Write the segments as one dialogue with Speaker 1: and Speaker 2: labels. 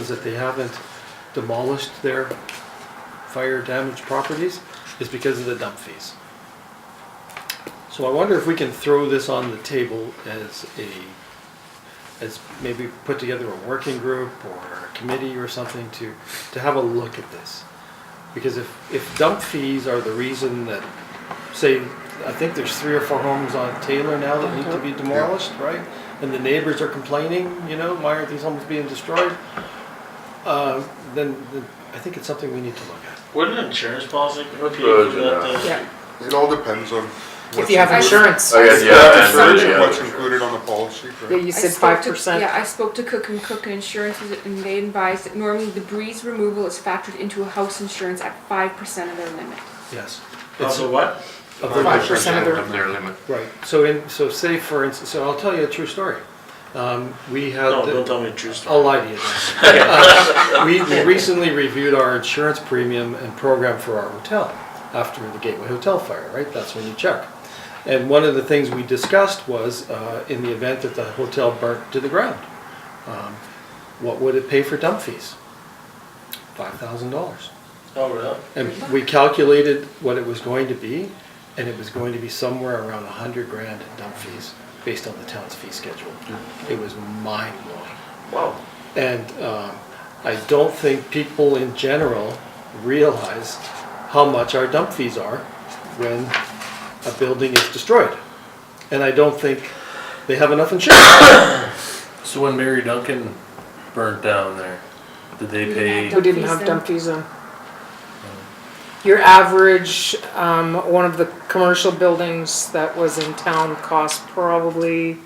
Speaker 1: is that they haven't demolished their fire damaged properties is because of the dump fees. So I wonder if we can throw this on the table as a, as maybe put together a working group or a committee or something to, to have a look at this. Because if, if dump fees are the reason that, say, I think there's three or four homes on Taylor now that need to be demolished, right? And the neighbors are complaining, you know, why aren't these homes being destroyed? Uh, then, then I think it's something we need to look at.
Speaker 2: Wouldn't insurance policy be for
Speaker 3: Good
Speaker 2: that?
Speaker 4: Yeah,
Speaker 3: It all depends on.
Speaker 4: if
Speaker 3: what's
Speaker 4: you have
Speaker 3: included.
Speaker 4: insurance.
Speaker 5: I guess,
Speaker 3: Yeah,
Speaker 5: yeah.
Speaker 3: it's
Speaker 5: and-
Speaker 3: really
Speaker 5: yeah,
Speaker 3: what's
Speaker 5: sure.
Speaker 3: included on the policy,
Speaker 4: Yeah,
Speaker 3: right?
Speaker 4: you
Speaker 6: I
Speaker 4: said
Speaker 6: spoke
Speaker 4: five
Speaker 6: to-
Speaker 4: percent.
Speaker 6: Yeah, I spoke to Cook and Cook Insurance is- and they advised that normally debris removal is factored into a house insurance at five percent of their limit.
Speaker 1: Yes. It's-
Speaker 2: Also what?
Speaker 1: of the-
Speaker 4: Five percent of their-
Speaker 5: limit.
Speaker 1: Right, so in, so say for instance, so I'll tell you a true story. Um, we had.
Speaker 2: No,
Speaker 1: the-
Speaker 2: don't tell me the true
Speaker 7: Oh.
Speaker 2: story.
Speaker 1: I'll lie to you. Uh, We we recently reviewed our insurance premium and program for our hotel after the Gateway Hotel fire, right? That's when you check. And one of the things we discussed was, uh, in the event that the hotel burnt to the ground, um, what would it pay for dump fees? Five thousand dollars.
Speaker 2: Oh, really?
Speaker 1: And we calculated what it was going to be, and it was going to be somewhere around a hundred grand in dump fees, based on the town's fee schedule. It was mind blowing.
Speaker 2: Wow.
Speaker 1: And um, I don't think people in general realize how much our dump fees are when a building is destroyed. And I don't think they have enough insurance.
Speaker 7: So when Mary Duncan burnt down there, did they
Speaker 6: We
Speaker 7: pay?
Speaker 6: had
Speaker 4: Who didn't
Speaker 6: Dump fees
Speaker 4: have
Speaker 6: then.
Speaker 4: dump fees on? Your average, um, one of the commercial buildings that was in town cost probably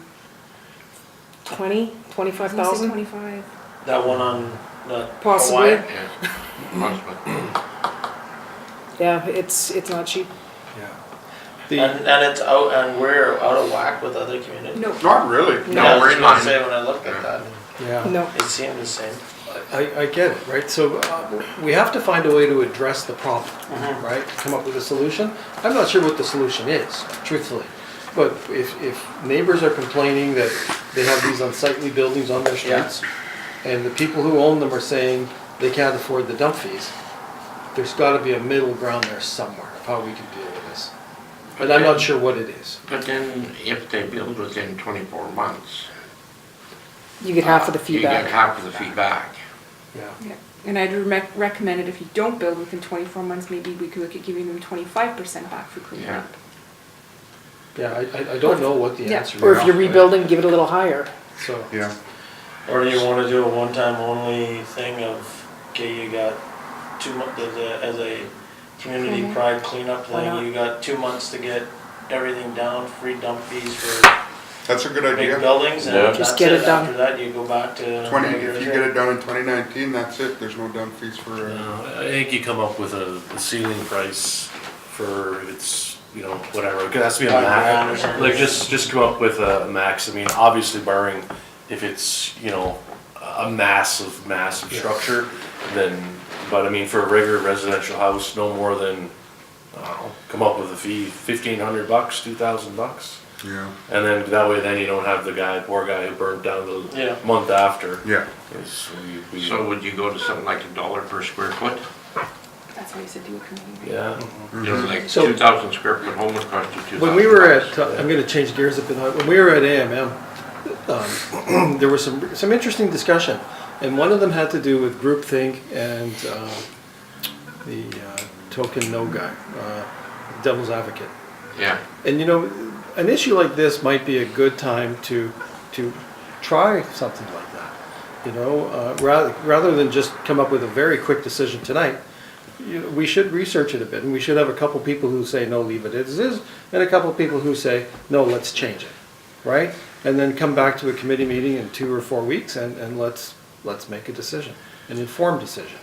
Speaker 4: twenty, twenty-five
Speaker 6: I was gonna say
Speaker 4: thousand?
Speaker 6: Twenty-five.
Speaker 2: That one on the
Speaker 4: Possibly.
Speaker 2: Hawaii?
Speaker 5: Yeah. Possibly.
Speaker 4: Yeah, it's, it's not cheap.
Speaker 1: The,
Speaker 2: And, and it's out, and we're out of whack with other communities?
Speaker 6: No,
Speaker 3: Not really.
Speaker 4: No.
Speaker 2: Yeah, I
Speaker 5: No,
Speaker 2: was
Speaker 5: we're in
Speaker 2: gonna
Speaker 5: line.
Speaker 2: Say when I looked at that,
Speaker 1: yeah.
Speaker 4: No,
Speaker 2: it seemed the same.
Speaker 1: I, I get it, right? So uh, we have to find a way to address the problem, right? Come up with a solution. I'm not sure what the solution is, truthfully. But if, if neighbors are complaining that they have these unsightly buildings on their
Speaker 2: Yeah.
Speaker 1: streets, and the people who own them are saying they can't afford the dump fees, there's gotta be a middle ground there somewhere of how we can deal with this. But I'm not sure what it is.
Speaker 5: But then if they build within twenty-four months.
Speaker 4: you get half of the
Speaker 5: You get
Speaker 4: feedback.
Speaker 5: half of the feedback.
Speaker 1: Yeah.
Speaker 6: yeah, and I'd rec- recommend it if you don't build within twenty-four months, maybe we could look at giving them twenty-five percent back for cleaning
Speaker 5: Yeah.
Speaker 6: up.
Speaker 1: Yeah, I- I, I don't know what the
Speaker 6: Yeah.
Speaker 1: answer is.
Speaker 4: Or if you're
Speaker 1: right?
Speaker 4: rebuilding, give it a little higher.
Speaker 1: So,
Speaker 3: Yeah,
Speaker 2: Or do you wanna do a one-time only thing of, okay, you got two months, as a, as a community
Speaker 6: Mhm.
Speaker 2: pride cleanup
Speaker 4: Mm-hmm. Why not?
Speaker 2: thing, you got two months to get everything down, free dump fees for
Speaker 3: that's a good
Speaker 2: big
Speaker 3: idea.
Speaker 2: buildings,
Speaker 7: Yeah.
Speaker 2: and
Speaker 4: Just
Speaker 2: that's
Speaker 4: get
Speaker 2: it,
Speaker 4: it done.
Speaker 2: after that, you go back to.
Speaker 3: Twenty,
Speaker 2: regular
Speaker 3: if you
Speaker 2: rate.
Speaker 3: get it done in twenty nineteen, that's it, there's no dump fees for, uh,
Speaker 7: No, I think you come up with a a ceiling price for if it's, you know, whatever, it has to be a
Speaker 2: Five grand or
Speaker 7: max.
Speaker 2: something.
Speaker 7: Like, just, just come up with a max, I mean, obviously barring if it's, you know, a massive, massive structure, then, but I mean, for a regular residential house, no more than, I don't know, come up with a fee, fifteen hundred bucks, two thousand bucks.
Speaker 3: yeah,
Speaker 7: And then that way, then you don't have the guy, poor guy who burned down
Speaker 2: Yeah.
Speaker 7: the month after.
Speaker 3: yeah.
Speaker 7: Is we, we,
Speaker 5: So would you go to something like a dollar per square foot?
Speaker 6: That's why you said do a committee.
Speaker 7: yeah.
Speaker 5: You know, like
Speaker 1: So-
Speaker 5: two thousand square foot home would cost you two thousand.
Speaker 1: When we were at, uh, I'm gonna change gears a bit, Uh, when we were at AMM, um, there was some, some interesting discussion. And one of them had to do with groupthink and uh, the uh, token no guy, uh, devil's advocate.
Speaker 5: Yeah,
Speaker 1: And you know, an issue like this might be a good time to, to try something like that. You know, uh, rather, rather than just come up with a very quick decision tonight, you know, we should research it a bit and we should have a couple people who say, no, leave it as is, and a couple people who say, no, let's change it, right? And then come back to a committee meeting in two or four weeks and, and let's, let's make a decision, an informed decision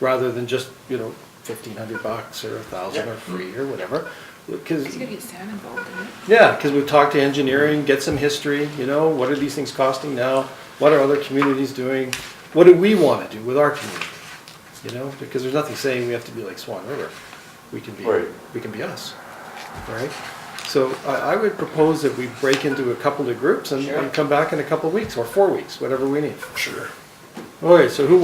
Speaker 1: rather than just, you know, fifteen hundred bucks or a thousand or free or whatever.
Speaker 6: It's
Speaker 1: Because,
Speaker 6: gonna get Sam involved in it.
Speaker 1: yeah, because we've talked to engineering, get some history, you know, what are these things costing now? What are other communities doing? What do we want to do with our community? You know, because there's nothing saying we have to be like Swan River. We can be,
Speaker 7: Right.
Speaker 1: we can be us, right? So I, I would propose that we break into a couple of groups and, and come back in a couple of weeks or four weeks, whatever we need. Sure. Okay, so who